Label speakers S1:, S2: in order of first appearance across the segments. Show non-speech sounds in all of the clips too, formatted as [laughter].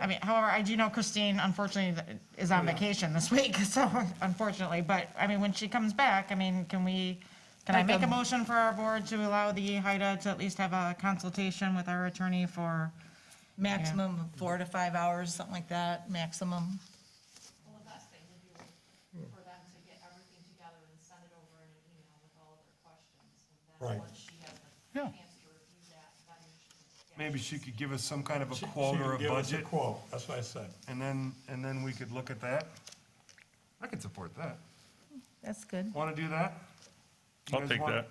S1: I mean, however, I do know Christine unfortunately th- is
S2: Oh,
S1: on vacation this [laughs] week, so unfortunately, but I mean, when she comes back, I mean, can we, can I
S3: Like
S2: um,
S1: make a
S3: a-
S1: motion for our board to allow the HIDA to at least have a consultation with our attorney for,
S3: Maximum of four to five hours, something like that, maximum.
S4: Well, the best thing would be for them to get everything together and send it over in an email with all of their questions. And
S5: Right.
S4: then once she has the
S6: Yeah.
S4: chance to review that, then she can.
S6: Maybe she could give us some kind of a
S5: She- she
S6: quote or a
S5: can give us
S6: budget,
S5: Quote, that's what I said.
S6: and then, and then we could look at that. I could support that.
S3: That's good.
S6: Want to do that? You
S7: I'll
S6: guys
S7: take
S6: want-
S7: that.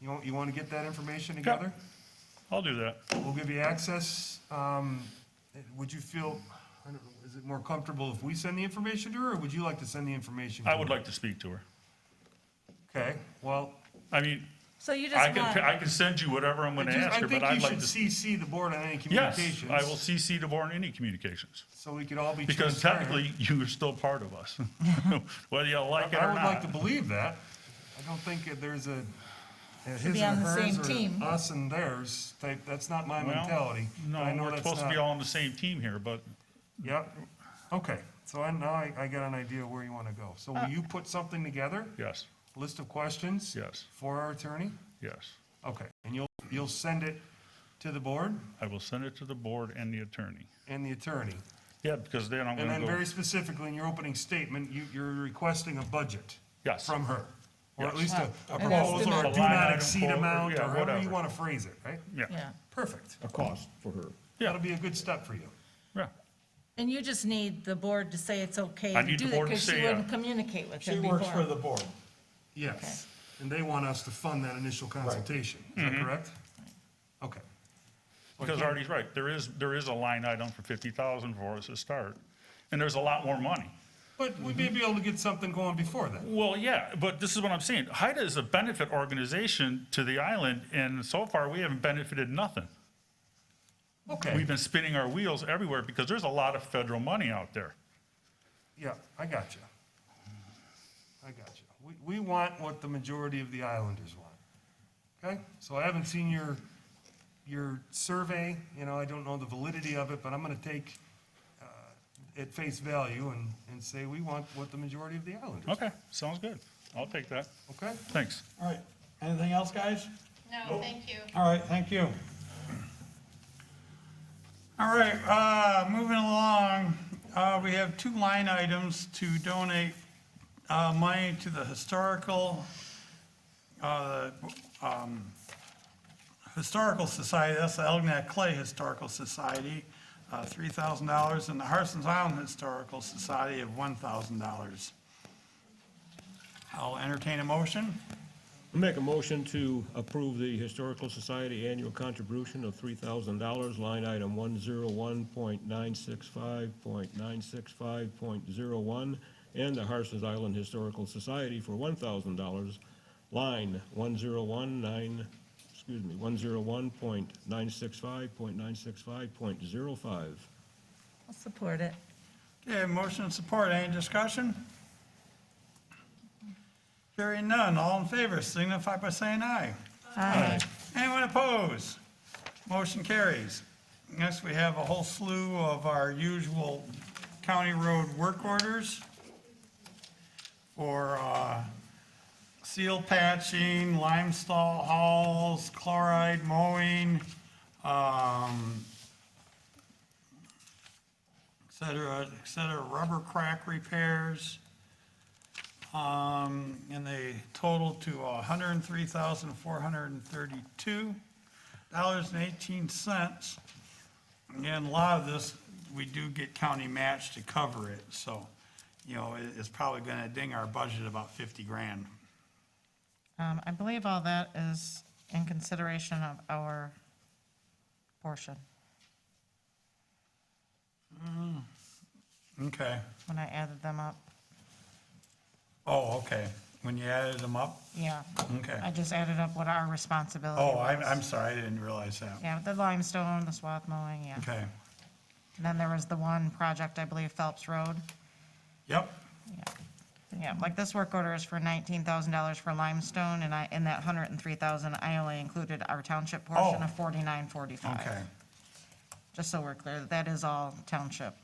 S6: You want, you want to get that information together?
S7: I'll do that.
S6: We'll give you access. Um, Would you feel, I don't know, is it more comfortable if we send the information to her, or would you like to send the information? to
S7: I would
S6: her?
S7: like to speak to her.
S6: Okay, well,
S7: I mean,
S3: So you
S7: I
S3: just
S7: can, I
S3: want,
S7: can send you whatever I'm
S6: I
S7: gonna
S6: just-
S7: ask
S6: I
S7: her,
S6: think
S7: but
S6: you
S7: I'd like
S6: should
S7: to.
S6: CC the board on any
S7: Yes,
S6: communications.
S7: I will CC DeBoer in any communications,
S6: So we could all be transparent.
S7: because technically, you are still part
S6: [laughs]
S7: of us, [laughs] whether you like it
S6: I
S7: or
S6: would like
S7: not.
S6: to believe that. I don't think that there's a, a his
S3: be
S6: and
S3: on the
S6: hers
S3: same team.
S6: or us and theirs type, that's not my
S7: Well,
S6: mentality.
S7: No,
S6: and I know
S7: we're
S6: that's
S7: supposed to be
S6: not-
S7: all on the same team here, but
S6: Yep, okay, so I, now I, I got an idea where you wanna go.
S3: Uh.
S6: So will you put something together?
S7: yes,
S6: List of questions?
S7: Yes.
S6: For our attorney?
S7: yes.
S6: Okay, and you'll, you'll send it to the board
S7: I will send it to the board and the attorney.
S6: and the attorney?
S7: Yeah, because then I'm
S6: And
S7: gonna
S6: then
S7: go,
S6: very specifically, in your opening statement, you, you're requesting a budget.
S7: Yes.
S6: From her, or at
S7: Yes.
S6: least a a
S3: And that's the
S6: proposal, or a
S7: next-
S6: do
S7: A line
S6: not
S7: item
S6: exceed
S7: quote, or-
S6: amount,
S7: yeah,
S6: or however you
S7: whatever.
S6: want to phrase it, right?
S7: yeah,
S3: yeah.
S6: Perfect.
S2: a cost for her.
S7: Yeah.
S6: That'll be a good step for you.
S7: yeah.
S3: And you just need the board to say it's okay
S7: I
S3: to
S7: need
S3: do
S7: the
S3: that
S7: board to
S3: because she
S7: say, uh,
S3: wouldn't communicate with
S5: She
S3: him
S5: works for
S3: before.
S5: the board.
S6: Yes, and they want us to fund that initial consultation, is that correct? Okay.
S7: Because Artie's right, there is, there is a line item for fifty thousand for us to start, and there's a lot more money.
S6: But we may be able to get something going before then.
S7: Well, yeah, but this is what I'm saying. HIDA is a benefit organization to the island, and so far, we haven't benefited nothing.
S6: Okay,
S7: We've been spinning our wheels everywhere because there's a lot of federal money out there.
S6: yeah, I got you. I got you. We, we want what the majority of the islanders want. Okay, so I haven't seen your, your survey, you know, I don't know the validity of it, but I'm gonna take uh, at face value and, and say we want what the majority of the islanders. want.
S7: Okay, sounds good. I'll take that.
S6: Okay?
S7: Thanks.
S5: All right, anything else, guys?
S4: No, thank you.
S5: All right, thank you.
S2: All right, uh, moving along, uh, we have two line items to donate, uh, money to the historical, uh, um, Historical Society, that's the Elginak Clay Historical Society, uh, three thousand dollars, and the Harson's Island Historical Society of one thousand dollars. I'll entertain a motion.
S8: Make a motion to approve the Historical Society annual contribution of three thousand dollars, line item one zero one point nine six five point nine six five point zero one, and the Harson's Island Historical Society for one thousand dollars, line one zero one nine, excuse me, one zero one point nine six five point nine six five point zero five.
S3: I'll support it.
S2: Okay, motion and support, any discussion? Hearing none, all in favor signify by saying aye.
S3: Aye.
S2: Anyone opposed? Motion carries. Next, we have a whole slew of our usual county road work orders for uh, seal patching, limestone hauls, chloride mowing, um, et cetera, et cetera, rubber crack repairs. Um, and they total to hundred and three thousand, four hundred and thirty-two dollars and eighteen cents. Again, a lot of this, we do get county match to cover it, so, you know, it, it's probably gonna ding our budget about fifty grand.
S1: um, I believe all that is in consideration of our portion.
S2: Okay.
S1: When I added them up,
S2: Oh, okay. When you added them up?
S1: yeah.
S2: Okay.
S1: I just added up what our responsibility
S2: Oh,
S1: was.
S2: I'm, I'm sorry, I didn't realize that.
S1: Yeah, the limestone, the swath mowing, yeah.
S2: Okay.
S1: And Then there was the one project, I believe Phelps Road.
S2: Yep.
S1: Yeah, like this work order is for nineteen thousand dollars for limestone, and I, in that hundred and three thousand, I only included our township portion
S2: Oh.
S1: of forty-nine forty-five.
S2: Okay.
S1: just so we're clear, that is all township.